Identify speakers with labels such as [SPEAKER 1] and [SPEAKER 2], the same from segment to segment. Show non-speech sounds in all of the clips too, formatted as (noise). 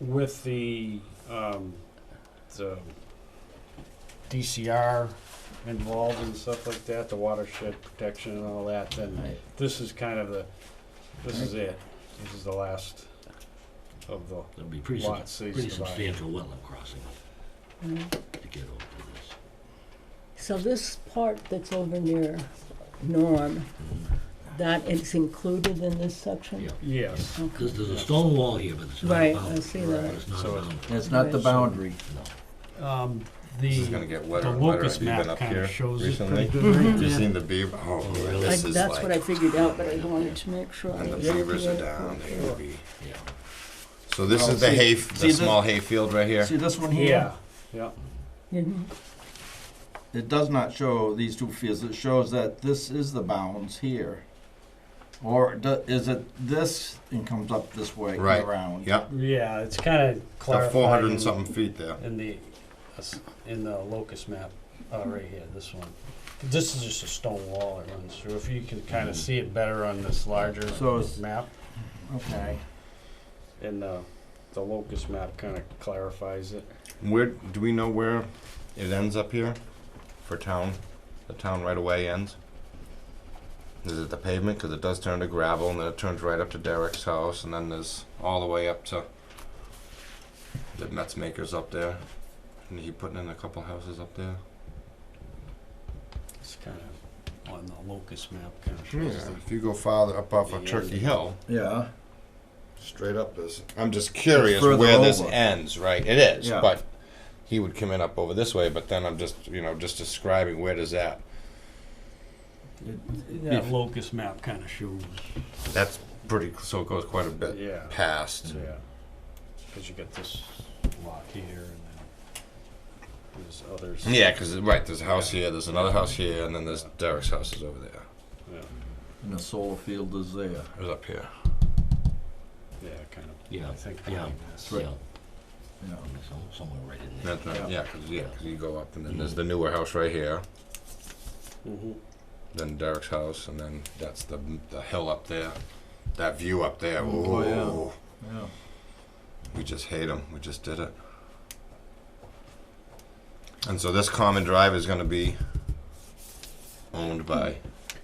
[SPEAKER 1] with the, um, the DCR involved and stuff like that, the watershed protection and all that, then
[SPEAKER 2] Right.
[SPEAKER 1] this is kind of the, this is it. This is the last of the
[SPEAKER 2] There'll be pretty, sub-
[SPEAKER 1] lots they
[SPEAKER 2] pretty
[SPEAKER 1] survived.
[SPEAKER 2] substantial wetland crossing
[SPEAKER 3] Mm.
[SPEAKER 2] to get over to
[SPEAKER 3] So this part that's over near Norm, that is included in this
[SPEAKER 2] this.
[SPEAKER 3] section?
[SPEAKER 2] Yeah,
[SPEAKER 1] Yes,
[SPEAKER 3] Okay.
[SPEAKER 2] because there's a stone wall here, but it's not
[SPEAKER 3] Right,
[SPEAKER 2] a
[SPEAKER 3] I
[SPEAKER 2] boundary.
[SPEAKER 3] see that.
[SPEAKER 2] It's not a
[SPEAKER 1] So it's-
[SPEAKER 2] boundary,
[SPEAKER 4] It's not the
[SPEAKER 3] Right.
[SPEAKER 4] boundary.
[SPEAKER 2] no.
[SPEAKER 1] um,
[SPEAKER 5] This is gonna
[SPEAKER 1] the,
[SPEAKER 5] get
[SPEAKER 1] the
[SPEAKER 5] wetter and wetter.
[SPEAKER 1] locust
[SPEAKER 5] Have you been
[SPEAKER 1] map
[SPEAKER 5] up
[SPEAKER 1] kind
[SPEAKER 5] here
[SPEAKER 1] of shows it
[SPEAKER 5] recently?
[SPEAKER 1] pretty good.
[SPEAKER 5] (laughs)
[SPEAKER 1] right?
[SPEAKER 5] You seen the beaver? Oh,
[SPEAKER 2] Oh, really?
[SPEAKER 3] I-
[SPEAKER 5] this is
[SPEAKER 3] That's what I
[SPEAKER 5] like,
[SPEAKER 3] figured out, but I wanted to make sure. I
[SPEAKER 5] and the
[SPEAKER 3] was looking
[SPEAKER 5] beavers
[SPEAKER 3] at it
[SPEAKER 5] are down. They will be.
[SPEAKER 2] Yeah.
[SPEAKER 5] So this
[SPEAKER 4] Well,
[SPEAKER 5] is the
[SPEAKER 4] see-
[SPEAKER 5] hay,
[SPEAKER 4] see
[SPEAKER 5] the
[SPEAKER 4] the-
[SPEAKER 5] small hay field right here.
[SPEAKER 4] See this one
[SPEAKER 1] Yeah,
[SPEAKER 4] here?
[SPEAKER 1] yeah,
[SPEAKER 3] correctly. Mhm.
[SPEAKER 4] It does not show these two fields. It shows that this is the bounds here. Or do- is it this and comes up this way
[SPEAKER 5] Right.
[SPEAKER 4] around?
[SPEAKER 5] Yep,
[SPEAKER 1] yeah, it's kind of
[SPEAKER 5] about
[SPEAKER 1] clarified.
[SPEAKER 5] four hundred and
[SPEAKER 1] in-
[SPEAKER 5] something feet there.
[SPEAKER 1] In the, us- in the locust map, uh, right here, this one. This is just a stone wall that runs through. If you can kind of see it better on this larger
[SPEAKER 4] So it's-
[SPEAKER 1] map.
[SPEAKER 4] Okay.
[SPEAKER 1] And uh, the locust map kind of clarifies it.
[SPEAKER 5] Where do we know where it ends up here for town? The town right away ends. Is it the pavement? Because it does turn to gravel, and then it turns right up to Derek's house, and then there's all the way up to the Metz makers up there, and he putting in a couple houses up there.
[SPEAKER 1] It's kind of on the locust map kind of
[SPEAKER 5] Yeah,
[SPEAKER 1] shows the-
[SPEAKER 5] if you go farther up off of
[SPEAKER 1] The
[SPEAKER 5] Turkey
[SPEAKER 1] end.
[SPEAKER 5] Hill,
[SPEAKER 4] Yeah.
[SPEAKER 5] straight up is. I'm just curious
[SPEAKER 4] further
[SPEAKER 5] where this
[SPEAKER 4] over.
[SPEAKER 5] ends, right? It is,
[SPEAKER 4] Yeah.
[SPEAKER 5] but he would come in up over this way, but then I'm just, you know, just describing where does that.
[SPEAKER 1] That locust map kind of shows.
[SPEAKER 5] That's pretty, so it goes quite a bit
[SPEAKER 1] Yeah.
[SPEAKER 5] past.
[SPEAKER 1] Yeah. Because you got this lot here and then there's others.
[SPEAKER 5] Yeah, because, right, there's a house here, there's another house here, and then there's Derek's house is over there.
[SPEAKER 1] Yeah,
[SPEAKER 4] And the solar field is there.
[SPEAKER 5] It was up here.
[SPEAKER 1] yeah kind of.
[SPEAKER 2] Yeah,
[SPEAKER 1] I think
[SPEAKER 2] yeah.
[SPEAKER 1] behind this.
[SPEAKER 2] Yeah,
[SPEAKER 4] Yeah.
[SPEAKER 2] some- somewhere right in there.
[SPEAKER 5] That's right, yeah, because you go up, and then there's
[SPEAKER 2] Mhm.
[SPEAKER 5] the newer house right here,
[SPEAKER 1] Mhm.
[SPEAKER 5] then Derek's house, and then that's the, the hill up there. That view up there,
[SPEAKER 4] Oh, yeah.
[SPEAKER 5] ooh,
[SPEAKER 4] Yeah.
[SPEAKER 5] we just hate them, we just did it. And so this common drive is gonna be owned by,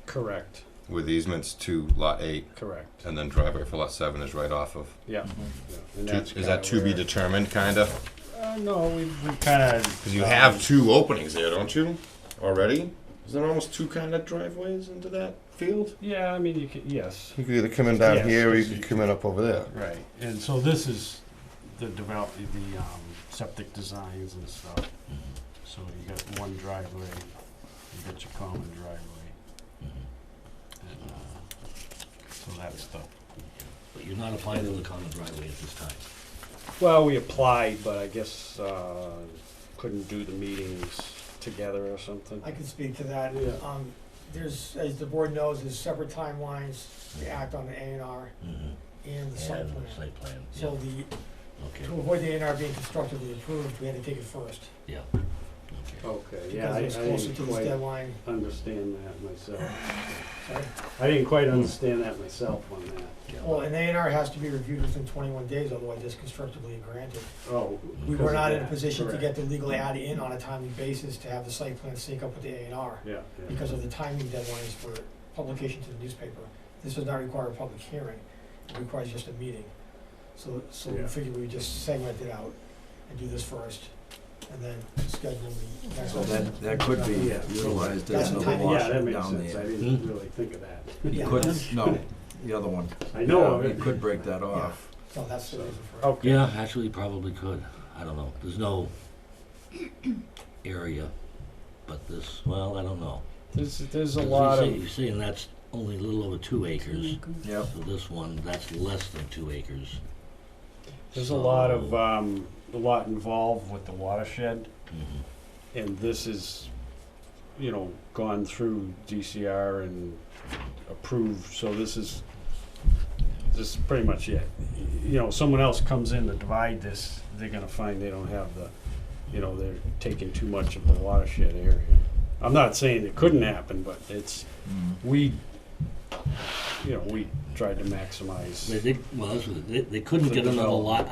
[SPEAKER 1] Correct,
[SPEAKER 5] with easements to lot eight,
[SPEAKER 1] correct.
[SPEAKER 5] and then driveway for lot seven is right off of
[SPEAKER 1] Yeah. yeah. And
[SPEAKER 5] Two-
[SPEAKER 1] that's
[SPEAKER 5] Is that
[SPEAKER 1] kinda
[SPEAKER 5] to be
[SPEAKER 1] where-
[SPEAKER 5] determined, kind of?
[SPEAKER 1] Uh, no, we, we kind of.
[SPEAKER 5] Because you have two openings there, don't you, already? Is there almost two kind of driveways into that field?
[SPEAKER 1] Yeah, I mean, you could, yes.
[SPEAKER 5] You could either come in
[SPEAKER 1] Yes,
[SPEAKER 5] down here, or you
[SPEAKER 1] yes, you
[SPEAKER 5] could come in up over there.
[SPEAKER 1] Right, and so this is the develop, the um, septic designs and stuff. So you got one driveway, you got your common driveway,
[SPEAKER 2] Mhm.
[SPEAKER 1] and uh, so that's the.
[SPEAKER 2] But you're not applying to the common driveway at this time.
[SPEAKER 1] Well, we applied, but I guess uh, couldn't do the meetings together or something.
[SPEAKER 6] I can speak to that.
[SPEAKER 1] Yeah.
[SPEAKER 6] Um, there's, as the board knows, there's separate timelines to act on the A and R
[SPEAKER 2] Mhm.
[SPEAKER 6] and the site
[SPEAKER 2] And
[SPEAKER 6] plan.
[SPEAKER 2] the site plan,
[SPEAKER 6] So
[SPEAKER 2] yeah,
[SPEAKER 6] the,
[SPEAKER 2] okay,
[SPEAKER 6] to avoid the A and R being constructively approved, we had to take it first.
[SPEAKER 2] yeah, okay.
[SPEAKER 1] Okay, yeah,
[SPEAKER 6] Because
[SPEAKER 1] I
[SPEAKER 6] it
[SPEAKER 1] I
[SPEAKER 6] was closer to
[SPEAKER 1] didn't
[SPEAKER 6] this
[SPEAKER 1] quite
[SPEAKER 6] deadline,
[SPEAKER 1] understand that myself.
[SPEAKER 6] sorry.
[SPEAKER 1] I didn't quite understand that myself on that.
[SPEAKER 2] yeah.
[SPEAKER 6] Well, an A and R has to be reviewed within twenty-one days, otherwise it's constructively granted.
[SPEAKER 1] Oh.
[SPEAKER 6] We
[SPEAKER 1] because
[SPEAKER 6] were
[SPEAKER 1] of
[SPEAKER 6] not in a
[SPEAKER 1] that,
[SPEAKER 6] position to get
[SPEAKER 1] correct.
[SPEAKER 6] the legal ad in on a timely basis to have the site plan sync up with the A and R
[SPEAKER 1] Yeah. yeah.
[SPEAKER 6] because of the timing deadlines for publication to the newspaper. This does not require a public hearing, it requires just a meeting. So, so we
[SPEAKER 1] Yeah.
[SPEAKER 6] figured we would just segment it out and do this first, and then schedule the next.
[SPEAKER 4] So that, that could be
[SPEAKER 1] Yeah.
[SPEAKER 4] utilized
[SPEAKER 6] That's
[SPEAKER 4] as
[SPEAKER 6] the
[SPEAKER 4] another
[SPEAKER 6] type-
[SPEAKER 1] Yeah, that
[SPEAKER 4] wash
[SPEAKER 1] makes
[SPEAKER 4] down
[SPEAKER 1] sense. I
[SPEAKER 4] there. Hmm?
[SPEAKER 1] didn't really think of that.
[SPEAKER 4] You
[SPEAKER 6] Yeah.
[SPEAKER 4] couldn't, no, the other one.
[SPEAKER 1] (laughs) I know of
[SPEAKER 4] You
[SPEAKER 1] it.
[SPEAKER 4] could break that off.
[SPEAKER 6] No, that's the reason for it.
[SPEAKER 1] Okay.
[SPEAKER 2] Yeah, actually, you probably could. I don't know. There's no area, but this, well, I don't know.
[SPEAKER 1] There's, there's a
[SPEAKER 2] Because
[SPEAKER 1] lot
[SPEAKER 2] you say-
[SPEAKER 1] of.
[SPEAKER 2] You're saying that's only a little over two acres.
[SPEAKER 3] Mm-hmm.
[SPEAKER 4] Yep.
[SPEAKER 2] So this one, that's less than two acres.
[SPEAKER 1] There's a lot of,
[SPEAKER 2] So-
[SPEAKER 1] um, a lot involved with the watershed,
[SPEAKER 2] Mhm.
[SPEAKER 1] and this is, you know, gone through DCR and approved, so this is, this is pretty much it. You know, someone else comes in to divide this, they're gonna find they don't have the, you know, they're taking too much of the watershed area. I'm not saying it couldn't happen, but it's,
[SPEAKER 4] Mm.
[SPEAKER 1] we, you know, we tried to
[SPEAKER 2] They
[SPEAKER 1] maximize.
[SPEAKER 2] did, well, that's what- they, they couldn't
[SPEAKER 1] For
[SPEAKER 2] get another
[SPEAKER 1] development.
[SPEAKER 2] lot